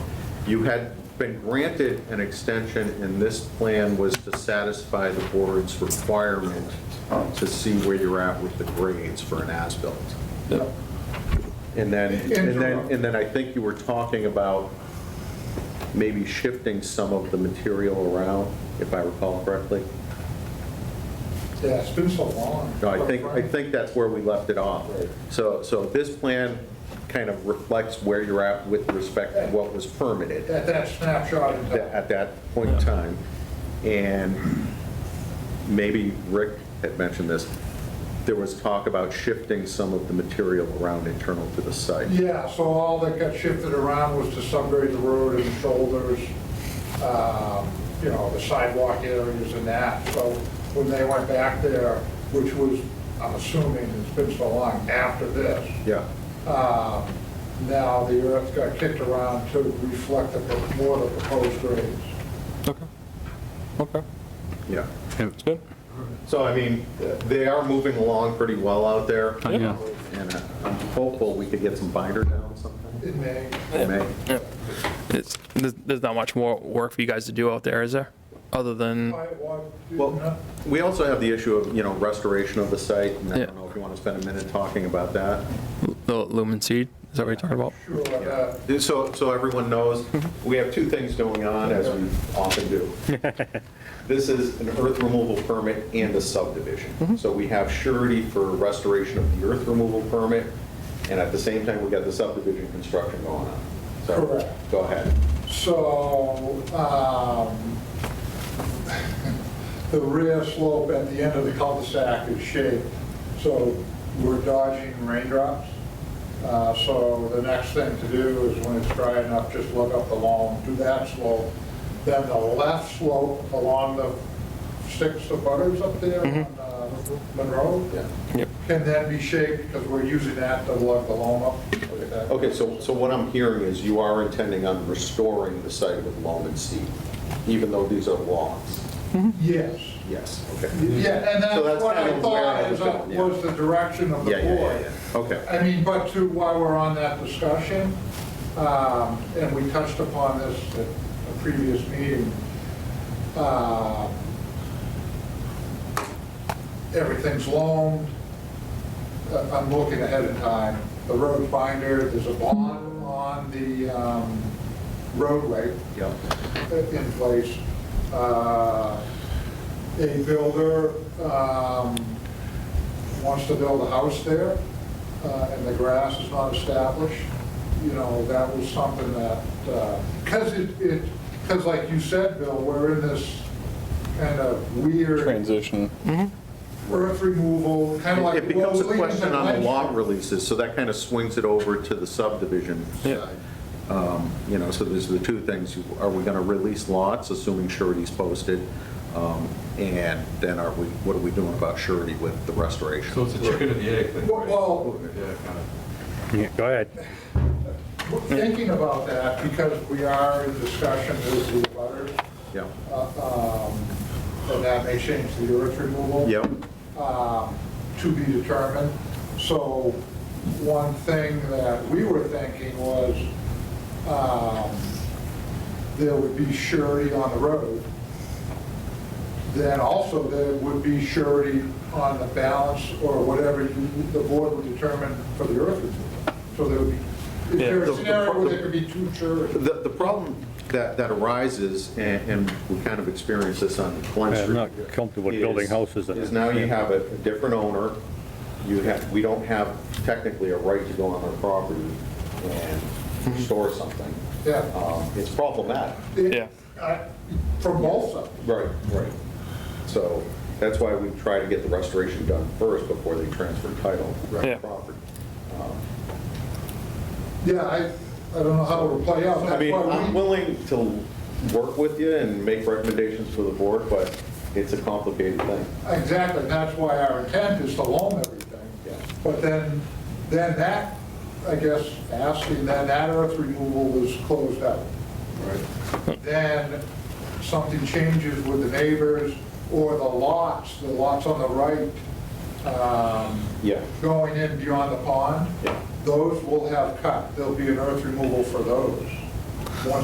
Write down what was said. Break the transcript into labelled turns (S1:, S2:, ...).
S1: You had been granted an extension, and this plan was to satisfy the board's requirement to see where you're at with the grades for an as-built. And then, and then, and then I think you were talking about maybe shifting some of the material around, if I recall correctly.
S2: Yeah, it's been so long.
S1: No, I think, I think that's where we left it off. So, so this plan kind of reflects where you're at with respect to what was permitted.
S2: At that snapshot in
S1: that-
S2: time.
S1: at that point in time. And maybe Rick had mentioned this, there was talk about shifting some of the material around internal to the site.
S2: Yeah, so all that got shifted around was to subgrade the road and shoulders, um, you know, the sidewalk areas and that. So when they went back there, which was, I'm assuming, it's been so long after this,
S1: Yeah,
S2: um, now the earth got kicked around to reflect the pro- more of the proposed grades.
S3: Okay. Okay.
S1: yeah.
S3: It's good.
S1: So I mean, they are moving along pretty well out there.
S3: Oh, yeah.
S1: And uh, I'm hopeful we could get some binder down sometime.
S2: It may,
S1: in May.
S4: It's, there's, there's not much more work for you guys to do out there, is there? Other than,
S2: sidewalk,
S1: Well, we also have the issue of, you know, restoration of the site, and I
S4: Yeah.
S1: don't know if you want to spend a minute talking about that.
S4: the lumen seed, is that what you're talking about?
S2: sure, uh,
S1: So, so everyone knows, we have two things going on, as we often do. This is an earth removal permit and a subdivision. So we have surety for restoration of the earth removal permit, and at the same time, we got the subdivision construction going on. So,
S2: Correct.
S1: go ahead.
S2: So, um, the rear slope at the end of the cul-de-sac is shaped, so we're dodging raindrops. Uh, So the next thing to do is when it's dry enough, just lug up the lawn, do that slope. Then the left slope along the six of butters up there on uh, Monroe
S4: Yep.
S2: can then be shaped because we're using that to lug the lawn up. Look at that.
S1: Okay, so, so what I'm hearing is you are intending on restoring the site with loam and seed, even though these are logs?
S2: Yes.
S1: Yes, okay.
S2: Yeah, and
S1: So
S2: that's
S1: that's
S2: what
S1: kind
S2: I
S1: of where I
S2: thought
S1: was
S2: is,
S1: going, yeah.
S2: was the direction of the
S1: Yeah, yeah, yeah,
S2: board.
S1: yeah, okay.
S2: I mean, but to, while we're on that discussion, um, and we touched upon this at a previous meeting, um, everything's loaned, Uh, I'm looking ahead in time, the road binder, there's a bond on the um, roadway
S1: Yeah.
S2: in place. Uh, A builder um, wants to build a house there, uh, and the grass is not established, you know, that was something that, because it, because like you said, Bill, we're in this kind of weird
S3: Transition.
S2: earth removal, kind of like.
S1: It becomes a
S2: well, leaves
S1: question
S2: and
S1: on the
S2: lights.
S1: lot releases, so that kind of swings it over to the subdivision
S4: Yeah.
S1: side. Um, You know, so there's the two things, are we going to release lots, assuming surety's posted? Um, And then are we, what are we doing about surety with the restoration?
S5: So it's a chicken and the egg thing, right?
S2: Well-
S5: Yeah, kind of.
S6: Yeah, go ahead.
S2: We're Thinking about that, because we are in discussion with the butters,
S1: Yeah,
S2: uh, um, and that may change the earth removal.
S1: Yep.
S2: um, to be determined. So one thing that we were thinking was um, there would be surety on the road. Then also there would be surety on the balance or whatever you- the board would determine for the earth removal. So there would be, is there
S1: Yeah.
S2: a scenario where there could be two sureties?
S1: The, the problem that, that arises, and, and we kind of experienced this on Glen
S6: Yeah, I'm
S1: Street.
S6: not comfortable with building
S1: is-
S6: houses in it.
S1: Is now you have a a different owner, you have, we don't have technically a right to go on their property and store something.
S2: Yeah.
S1: Um, It's problematic.
S4: Yeah.
S2: Uh, From both sides.
S1: Right, right. So that's why we try to get the restoration done first before they transfer title to the
S4: Yeah.
S1: property.
S2: Yeah, I, I don't know how it would play out.
S1: I mean,
S2: That's why
S1: I'm
S2: we-
S1: willing to work with you and make recommendations for the board, but it's a complicated thing.
S2: Exactly, that's why our intent is to loan everything.
S1: Yeah.
S2: But then, then that, I guess, asking, then that earth removal was closed out. Then something changes with the neighbors or the lots, the lots on the right, um,
S1: Yeah.
S2: going in beyond the pond.
S1: Yeah.
S2: Those will have cut, there'll be an earth removal for those.